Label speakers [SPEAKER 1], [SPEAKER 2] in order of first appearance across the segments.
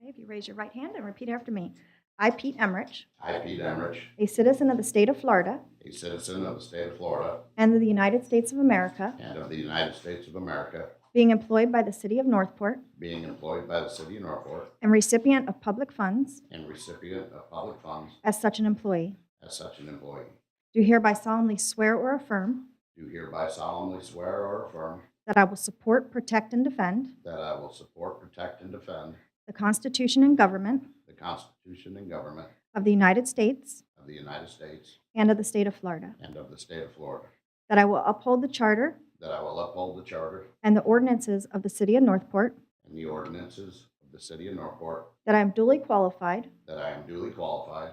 [SPEAKER 1] If you raise your right hand and repeat after me. I, Pete Emmerich,
[SPEAKER 2] I, Pete Emmerich,
[SPEAKER 1] a citizen of the state of Florida
[SPEAKER 2] a citizen of the state of Florida
[SPEAKER 1] and of the United States of America,
[SPEAKER 2] and of the United States of America,
[SPEAKER 1] being employed by the city of Northport
[SPEAKER 2] being employed by the city of Norfolk
[SPEAKER 1] and recipient of public funds
[SPEAKER 2] and recipient of public funds
[SPEAKER 1] as such an employee,
[SPEAKER 2] as such an employee,
[SPEAKER 1] do hereby solemnly swear or affirm
[SPEAKER 2] do hereby solemnly swear or affirm
[SPEAKER 1] that I will support, protect, and defend
[SPEAKER 2] that I will support, protect, and defend
[SPEAKER 1] the Constitution and government
[SPEAKER 2] the Constitution and government
[SPEAKER 1] of the United States
[SPEAKER 2] of the United States
[SPEAKER 1] and of the state of Florida,
[SPEAKER 2] and of the state of Florida,
[SPEAKER 1] that I will uphold the charter
[SPEAKER 2] that I will uphold the charter
[SPEAKER 1] and the ordinances of the city of Northport,
[SPEAKER 2] and the ordinances of the city of Norfolk,
[SPEAKER 1] that I am duly qualified
[SPEAKER 2] that I am duly qualified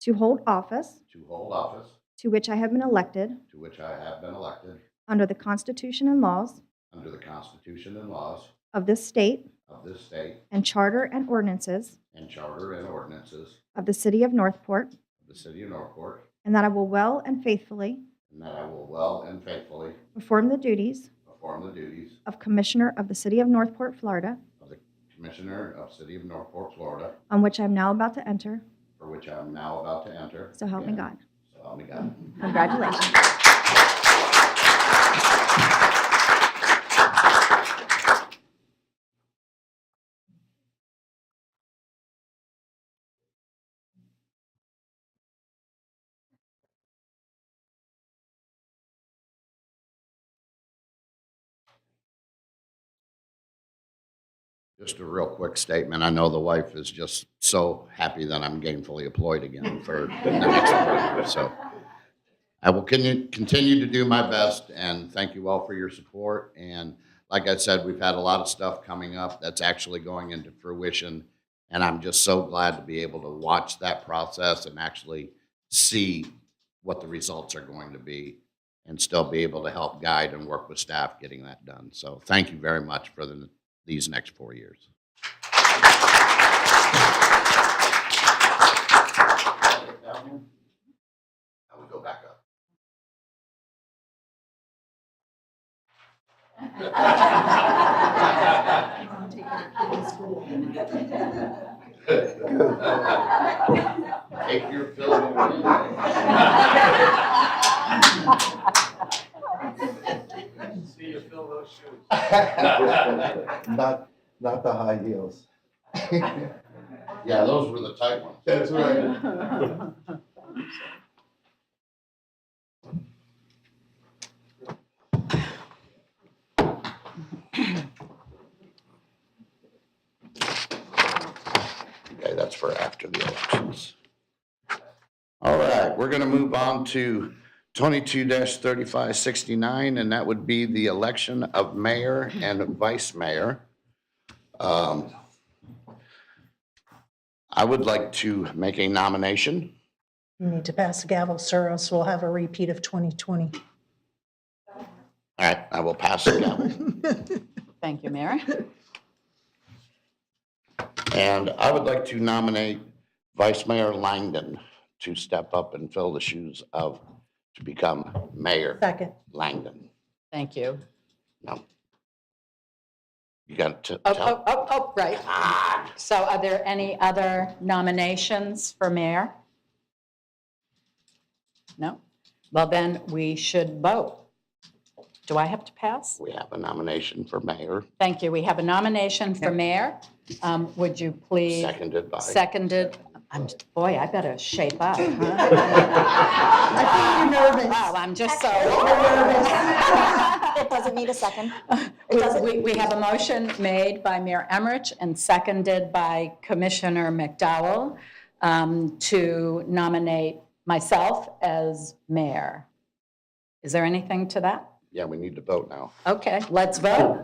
[SPEAKER 1] to hold office
[SPEAKER 2] to hold office
[SPEAKER 1] to which I have been elected
[SPEAKER 2] to which I have been elected
[SPEAKER 1] under the Constitution and laws
[SPEAKER 2] under the Constitution and laws
[SPEAKER 1] of this state
[SPEAKER 2] of this state
[SPEAKER 1] and charter and ordinances
[SPEAKER 2] and charter and ordinances
[SPEAKER 1] of the city of Northport,
[SPEAKER 2] of the city of Norfolk,
[SPEAKER 1] and that I will well and faithfully
[SPEAKER 2] and that I will well and faithfully
[SPEAKER 1] perform the duties
[SPEAKER 2] perform the duties
[SPEAKER 1] of Commissioner of the city of Northport, Florida,
[SPEAKER 2] of the Commissioner of City of Norfolk, Florida,
[SPEAKER 1] on which I am now about to enter,
[SPEAKER 2] for which I am now about to enter.
[SPEAKER 1] so help me God.
[SPEAKER 2] So help me God.
[SPEAKER 1] Congratulations.
[SPEAKER 2] Just a real quick statement. I know the wife is just so happy that I'm gainfully employed again for the next year. So I will con- continue to do my best and thank you all for your support. And like I said, we've had a lot of stuff coming up that's actually going into fruition. And I'm just so glad to be able to watch that process and actually see what the results are going to be and still be able to help guide and work with staff getting that done. So thank you very much for the these next four years. I would go back up. Take your fill of
[SPEAKER 3] See you fill those shoes.
[SPEAKER 4] Not, not the high heels.
[SPEAKER 2] Yeah, those were the tight ones.
[SPEAKER 4] That's right.
[SPEAKER 2] Okay, that's for after the elections. All right, we're going to move on to twenty-two thirty-five sixty-nine, and that would be the election of mayor and vice mayor. Um, I would like to make a nomination.
[SPEAKER 5] You need to pass the gavel, sir, else we'll have a repeat of 2020.
[SPEAKER 2] All right, I will pass it down.
[SPEAKER 6] Thank you, Mary.
[SPEAKER 2] And I would like to nominate Vice Mayor Langdon to step up and fill the shoes of, to become Mayor
[SPEAKER 5] Second.
[SPEAKER 2] Langdon.
[SPEAKER 6] Thank you.
[SPEAKER 2] No. You got to
[SPEAKER 6] Oh,
[SPEAKER 2] tell.
[SPEAKER 6] oh, oh, oh, right. So are there any other nominations for mayor? No? Well, then we should vote. Do I have to pass?
[SPEAKER 2] We have a nomination for mayor,
[SPEAKER 6] Thank you. We have a nomination for mayor. Um, Would you please?
[SPEAKER 2] seconded by.
[SPEAKER 6] Seconded. I'm, boy, I better shape up, huh? I think you're nervous. Wow, I'm just so.
[SPEAKER 7] It doesn't need a second.
[SPEAKER 6] We, we have a motion made by Mayor Emmerich and seconded by Commissioner McDowell um, to nominate myself as mayor. Is there anything to that?
[SPEAKER 2] Yeah, we need to vote now.
[SPEAKER 6] Okay, let's vote.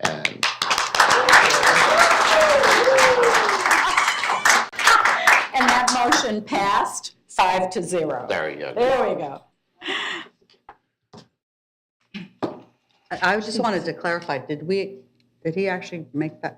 [SPEAKER 2] And
[SPEAKER 6] And that motion passed five to zero.
[SPEAKER 2] there you go.
[SPEAKER 6] There we go.
[SPEAKER 8] I I just wanted to clarify, did we, did he actually make that